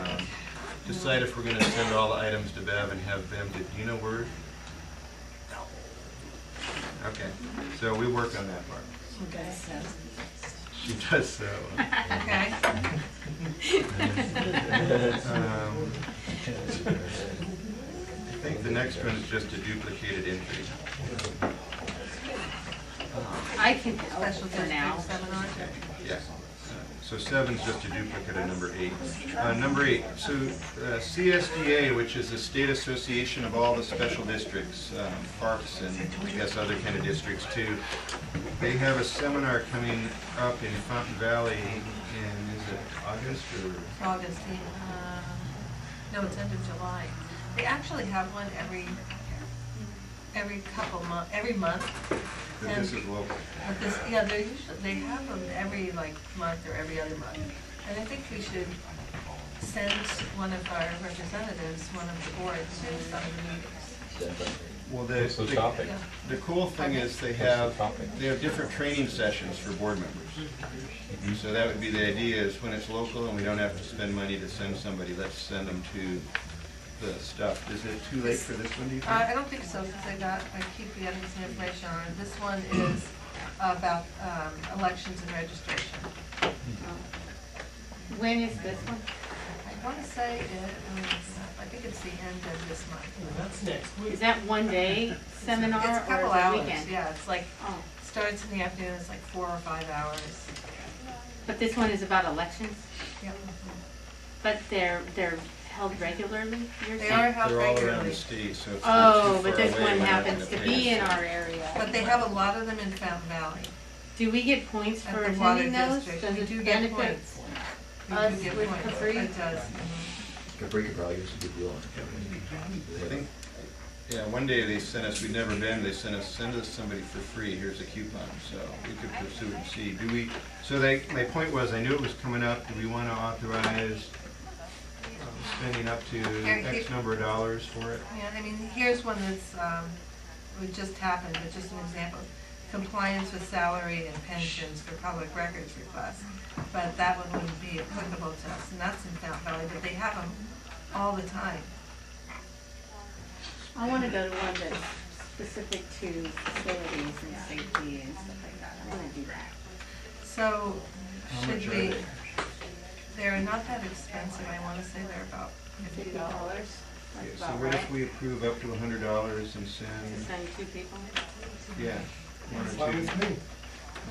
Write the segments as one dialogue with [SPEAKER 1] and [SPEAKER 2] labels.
[SPEAKER 1] Um, decide if we're gonna send all the items to Bev and have Bev, do you know where? Okay, so we work on that part.
[SPEAKER 2] Okay, so.
[SPEAKER 1] She does so.
[SPEAKER 2] Okay.
[SPEAKER 1] Um, I think the next one is just a duplicated entry.
[SPEAKER 2] I can help for now.
[SPEAKER 1] Okay, Yeah. So seven's just a duplicate of number eight. Uh, Number eight, so uh, CSDA, which is the state association of all the special districts, um, parks and I guess other kind of districts too, they have a seminar coming up in Fountain Valley in, is it August or?
[SPEAKER 3] August, the, uh, no, it's end of July. They actually have one every, every couple month, every month.
[SPEAKER 1] But This is local.
[SPEAKER 3] But this, yeah, they're usually, they have them every like month or every other month. And I think we should send one of our representatives, one of the boards, to some of the meetings.
[SPEAKER 1] Well,
[SPEAKER 4] What's the topic?
[SPEAKER 3] Yeah.
[SPEAKER 1] The cool thing is they have, they have different training sessions for board members. So that would be the idea is when it's local and we don't have to spend money to send somebody, let's send them to the stuff. Is it too late for this one, do you
[SPEAKER 3] Uh,
[SPEAKER 1] think?
[SPEAKER 3] I don't think so, since I got, I keep getting some information on it. This one is about, um, elections and registration.
[SPEAKER 2] When is this one?
[SPEAKER 3] I want to say, it was, I think it's the end of this month.
[SPEAKER 5] That's next week.
[SPEAKER 2] Is that one day seminar
[SPEAKER 3] It's a
[SPEAKER 2] or
[SPEAKER 3] couple
[SPEAKER 2] is it
[SPEAKER 3] hours,
[SPEAKER 2] weekend?
[SPEAKER 3] yeah, it's like,
[SPEAKER 2] Oh,
[SPEAKER 3] starts in the afternoon, it's like four or five hours.
[SPEAKER 2] but this one is about elections,
[SPEAKER 3] Yeah.
[SPEAKER 2] but they're, they're held regularly, you're
[SPEAKER 3] They
[SPEAKER 2] saying?
[SPEAKER 3] are held
[SPEAKER 1] They're all around the
[SPEAKER 3] regularly,
[SPEAKER 1] state, so if they're too
[SPEAKER 2] Oh, but
[SPEAKER 1] far
[SPEAKER 2] this
[SPEAKER 1] away,
[SPEAKER 2] one
[SPEAKER 1] we're not
[SPEAKER 2] happens to
[SPEAKER 1] gonna
[SPEAKER 2] be
[SPEAKER 1] pay
[SPEAKER 2] in
[SPEAKER 1] us.
[SPEAKER 2] our area.
[SPEAKER 3] but they have a lot of them in Fountain Valley.
[SPEAKER 2] Do we get points
[SPEAKER 3] At
[SPEAKER 2] for
[SPEAKER 3] the water
[SPEAKER 2] attending those?
[SPEAKER 3] district,
[SPEAKER 2] Does
[SPEAKER 3] we
[SPEAKER 2] it
[SPEAKER 3] do get
[SPEAKER 2] benefit?
[SPEAKER 3] points. You
[SPEAKER 2] Us
[SPEAKER 3] do get
[SPEAKER 2] with
[SPEAKER 3] points.
[SPEAKER 2] Capri?
[SPEAKER 3] It does.
[SPEAKER 6] Capri probably gives a good deal on
[SPEAKER 1] I
[SPEAKER 6] it.
[SPEAKER 1] think- Yeah, one day they sent us, we'd never been, they sent us, send us somebody for free, here's a coupon, so we could pursue and see. Do we, so they, my point was, I knew it was coming up, do we want to authorize um, spending up to X number of dollars for it?
[SPEAKER 3] Yeah, I mean, here's one that's, um, it just happened, but just an example. Compliance with salary and pensions for public records requests. But that one wouldn't be applicable to us, and that's in Fountain Valley, but they have them all the time.
[SPEAKER 2] I wanna go to one that's specific to facilities and safety and stuff like that, I wanna do that.
[SPEAKER 3] So,
[SPEAKER 1] How
[SPEAKER 3] should
[SPEAKER 1] much are
[SPEAKER 3] we,
[SPEAKER 1] they?
[SPEAKER 3] they're not that expensive, I wanna say they're about fifty
[SPEAKER 2] That's
[SPEAKER 3] dollars.
[SPEAKER 1] Okay, So
[SPEAKER 2] about
[SPEAKER 1] what
[SPEAKER 2] right,
[SPEAKER 1] if we approve up to a hundred dollars and
[SPEAKER 2] to
[SPEAKER 1] send,
[SPEAKER 2] send two people.
[SPEAKER 1] yeah, one or
[SPEAKER 5] Fine
[SPEAKER 1] two?
[SPEAKER 5] with me.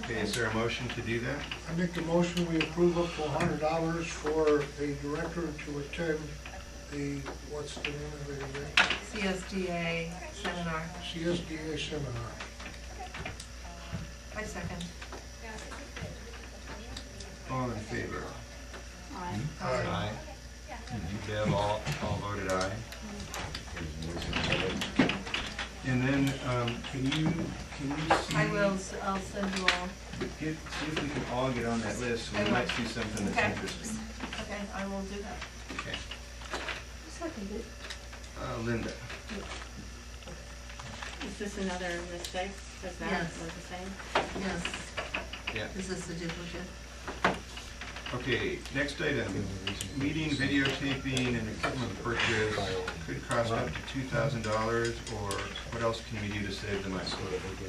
[SPEAKER 1] Okay, is there a motion to do that?
[SPEAKER 5] I make the motion, we approve up to hundred dollars for a director to attend the, what's the name of it again?
[SPEAKER 3] CSDA seminar,
[SPEAKER 5] CSDA seminar.
[SPEAKER 3] I second.
[SPEAKER 1] All in favor?
[SPEAKER 2] Alright.
[SPEAKER 3] Um,
[SPEAKER 1] Aye. Deb, all, all voted aye. And then, um, can you, can you see?
[SPEAKER 3] I will, s- I'll send you all,
[SPEAKER 1] Get, see if we can all get on that list,
[SPEAKER 3] I
[SPEAKER 1] we
[SPEAKER 3] will.
[SPEAKER 1] might see something
[SPEAKER 3] Okay.
[SPEAKER 1] that's interesting.
[SPEAKER 3] okay, I will do that.
[SPEAKER 1] Okay. Uh, Linda,
[SPEAKER 2] Is this another mistake? Does that
[SPEAKER 3] Yes.
[SPEAKER 2] look the same?
[SPEAKER 3] Yes,
[SPEAKER 1] yeah,
[SPEAKER 3] this is the duplicate.
[SPEAKER 1] okay, next item, meeting videotaping and equipment purchase could cost up to two thousand dollars, or what else can we do to save the money?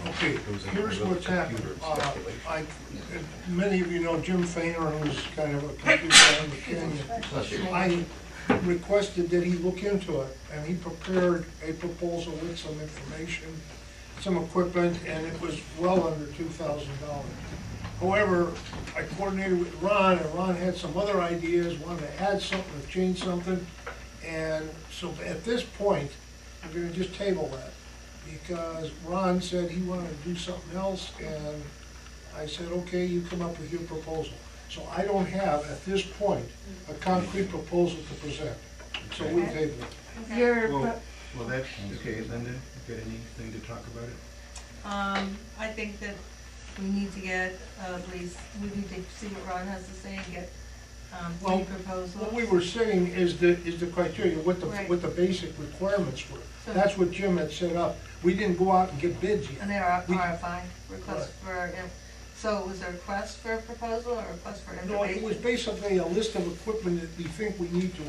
[SPEAKER 5] Okay, here's what's happened. Uh, I, many of you know Jim Fainer, who's kind of a computer guy in the canyon. I requested that he look into it, and he prepared a proposal with some information, some equipment, and it was well under two thousand dollars. However, I coordinated with Ron, and Ron had some other ideas, wanted to add something, or change something, and so at this point, I'm gonna just table that, because Ron said he wanted to do something else, and I said, okay, you come up with your proposal. So I don't have, at this point, a concrete proposal to present, so we
[SPEAKER 3] Okay.
[SPEAKER 5] table it.
[SPEAKER 2] Your,
[SPEAKER 1] Well,
[SPEAKER 2] pro-
[SPEAKER 1] well, that's, okay, Linda, you got anything to talk about it?
[SPEAKER 3] Um, I think that we need to get, uh, at least, we need to see what Ron has to say and get, um,
[SPEAKER 5] Well,
[SPEAKER 3] three proposals.
[SPEAKER 5] What we were saying is the, is the criteria, what the,
[SPEAKER 3] Right.
[SPEAKER 5] what the basic requirements were.
[SPEAKER 3] So-
[SPEAKER 5] That's what Jim had set up. We didn't go out and get bids
[SPEAKER 3] And
[SPEAKER 5] yet.
[SPEAKER 3] there are
[SPEAKER 5] We-
[SPEAKER 3] RFI, request for, in- so it was a request for a proposal or a request for
[SPEAKER 5] No, it
[SPEAKER 3] information?
[SPEAKER 5] was basically a list of equipment that we think we need to